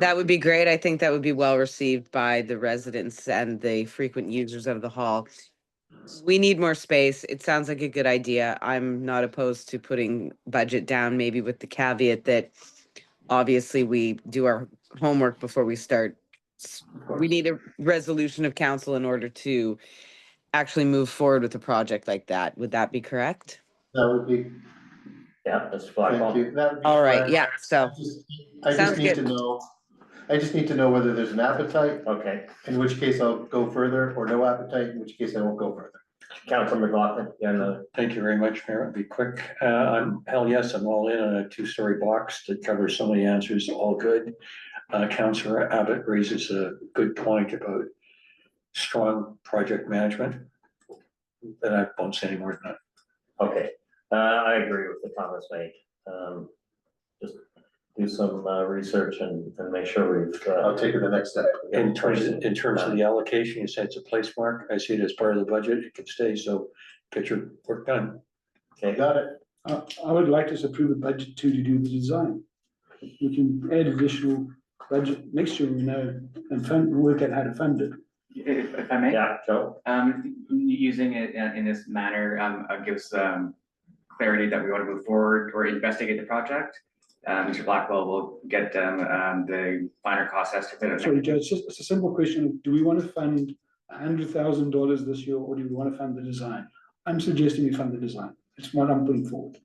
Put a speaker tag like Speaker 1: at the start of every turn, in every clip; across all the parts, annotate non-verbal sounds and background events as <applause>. Speaker 1: That would be great. I think that would be well received by the residents and the frequent users of the hall. We need more space. It sounds like a good idea. I'm not opposed to putting budget down, maybe with the caveat that obviously we do our homework before we start. S- We need a resolution of council in order to actually move forward with a project like that. Would that be correct?
Speaker 2: That would be,
Speaker 3: Yeah, that's spot
Speaker 2: thank
Speaker 3: on.
Speaker 2: you. That would be
Speaker 1: All right,
Speaker 2: fine.
Speaker 1: yeah,
Speaker 2: I
Speaker 1: so,
Speaker 2: just- I
Speaker 1: Sounds
Speaker 2: just need to
Speaker 1: good.
Speaker 2: know, I just need to know whether there's an appetite,
Speaker 3: Okay,
Speaker 2: in which case I'll go further, or no appetite, in which case I won't go further.
Speaker 3: Council McLaughlin, you have another.
Speaker 4: Thank you very much, Mayor. I'll be quick. Uh, I'm, hell yes, I'm all in on a two-story box that covers so many answers, all good. Uh, Counselor Abbott raises a good point about strong project management. That I won't say any more than
Speaker 3: Okay, uh, I agree with the comments made. Um, just do some, uh, research and, and make sure we've,
Speaker 2: I'll
Speaker 3: uh.
Speaker 2: take it the next step.
Speaker 4: that. In terms, in terms of the allocation, you said it's a place mark. I see it as part of the budget. It can stay, so get your work done.
Speaker 3: Okay,
Speaker 2: Got it?
Speaker 5: I, I would like us to approve a budget too to do the design. We can add additional budget next year, you know, and fund, work out how to fund it.
Speaker 6: If, if I may,
Speaker 3: yeah, Joe,
Speaker 6: um, using it in in this manner, um, uh, gives, um, clarity that we want to move forward or investigate the project. Uh, Mr. Blackwell will get, um, um, the finer cost estimate.
Speaker 5: Sorry, Joe, it's just, it's a simple question. of Do we want to fund a hundred thousand dollars this year or do we want to fund the design? I'm suggesting we fund the design. It's what I'm putting forward.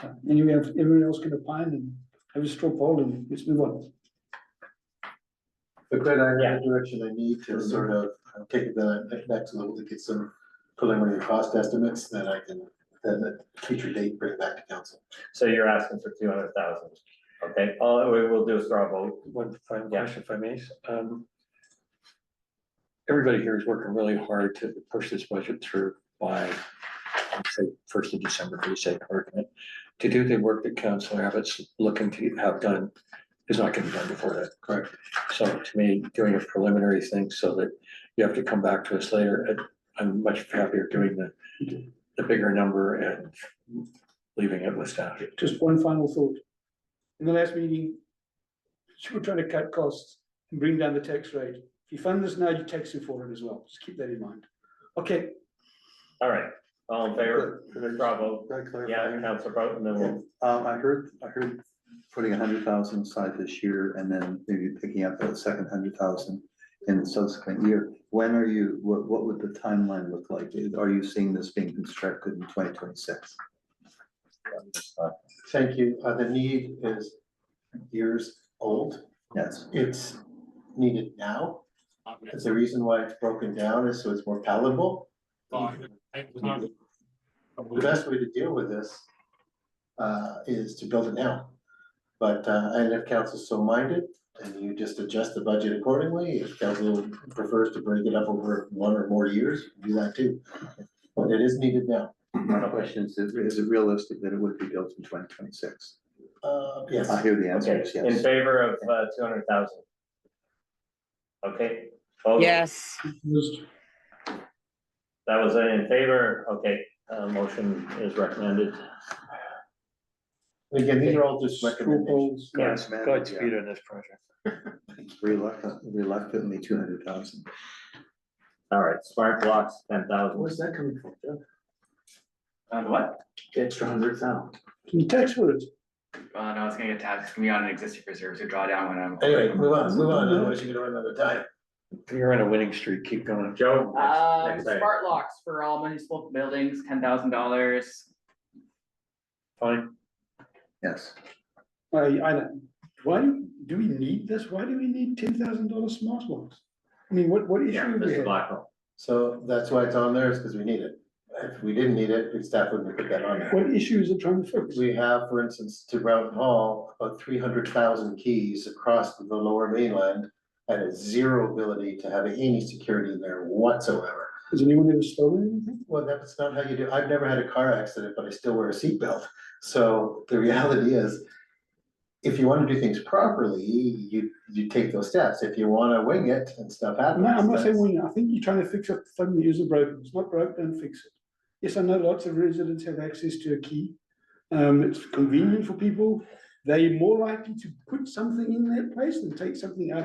Speaker 5: So anyway, if everyone else can opine and have a straw poll and let's move on.
Speaker 2: But then I
Speaker 3: Yeah.
Speaker 2: have the direction I need to sort of uh, take it the ne- next level to get some preliminary cost estimates that I can, then at a future date, bring back to council.
Speaker 3: so you're asking for two hundred thousand. Okay, all we will do is throw a vote.
Speaker 4: One final
Speaker 3: Yeah.
Speaker 4: question, if I may. Um, Everybody here is working really hard to push this budget through by, I'd say, first of December, for the sake of argument. To do the work that Council Abbott's looking to have done is not gonna be done before that.
Speaker 2: Correct.
Speaker 4: So to me, doing a preliminary thing so that you have to come back to us later, uh, I'm much happier doing the, the bigger number and leaving it with staff.
Speaker 5: Just one final thought. In the last meeting, <laughs> you were trying to cut costs and bring down the tax rate. If you fund this now, you're taxing for it as well. Just keep that in mind. Okay,
Speaker 3: All right, all in favor, throw a vote.
Speaker 7: Can I
Speaker 3: Yeah,
Speaker 7: clarify?
Speaker 3: Council Broughton, then we'll,
Speaker 7: Um, I heard, I heard putting a hundred thousand aside this year and then maybe picking up the second hundred thousand in the subsequent year. When are you, what, what would the timeline look like? Are you seeing this being constructed in twenty twenty-six?
Speaker 2: Thank you. Uh, the need is years old.
Speaker 7: Yes,
Speaker 2: It's needed now. That's the reason why it's broken down is so it's more palatable. The best way to deal with this uh, is to build it now. But, uh, and if council's so minded, and you just adjust the budget accordingly, if council prefers to break it up over one or more years, do that too. But it is needed now.
Speaker 7: my question is, is it realistic that it would be built in twenty twenty-six?
Speaker 2: Uh, yes,
Speaker 7: I hear the answer
Speaker 3: okay,
Speaker 7: is
Speaker 3: in
Speaker 7: yes.
Speaker 3: favor of, uh, two hundred thousand. Okay. vote.
Speaker 1: yes,
Speaker 5: just
Speaker 3: That was in favor, okay, uh, motion is recommended.
Speaker 2: again, these are all just
Speaker 5: straw
Speaker 2: recommendations.
Speaker 5: polls.
Speaker 7: Yes, ma'am,
Speaker 4: Godspeed
Speaker 7: yeah.
Speaker 4: on this project.
Speaker 7: <laughs> Reluctant, reluctantly two hundred thousand.
Speaker 3: All right, smart blocks, ten thousand.
Speaker 2: Where's that coming from, Jeff?
Speaker 6: Uh, the what?
Speaker 2: Extra hundred thousand.
Speaker 5: Can you tax for it?
Speaker 6: Uh, no, it's gonna get taxed, it's gonna be on an existing reserve to draw down when I'm.
Speaker 2: Anyway, move on, move on, otherwise you're gonna run out of time.
Speaker 4: You're on a winning streak, keep going.
Speaker 3: Joe?
Speaker 6: Um,
Speaker 3: next item.
Speaker 6: smart locks for all municipal buildings, ten thousand dollars.
Speaker 4: Fine.
Speaker 7: Yes.
Speaker 5: I, I don't, why do, do we need this? Why do we need ten thousand dollar smart locks? I mean, what, what
Speaker 3: Yeah,
Speaker 5: issue do we
Speaker 3: Mr.
Speaker 5: have?
Speaker 3: Blackwell.
Speaker 2: So that's why it's on there, is because we need it. If we didn't need it, the staff wouldn't put that on there.
Speaker 5: What issue is it trying to fix?
Speaker 2: We have, for instance, to Brown Hall, about three hundred thousand keys across the lower mainland and a zero ability to have any security there whatsoever.
Speaker 5: Has anyone ever stolen anything?
Speaker 2: Well, that's not how you do, I've never had a car accident, but I still wear a seatbelt. So the reality is, if you want to do things properly, you, you take those steps. If you want to wing it and stuff happens.
Speaker 5: No, I'm not saying,
Speaker 2: that's-
Speaker 5: we- I think you're trying to fix a thing that isn't broken. It's not broke, don't fix it. Yes, I know lots of residents have access to a key. Um, it's convenient for people. they're more likely to put something in their place than take something out of.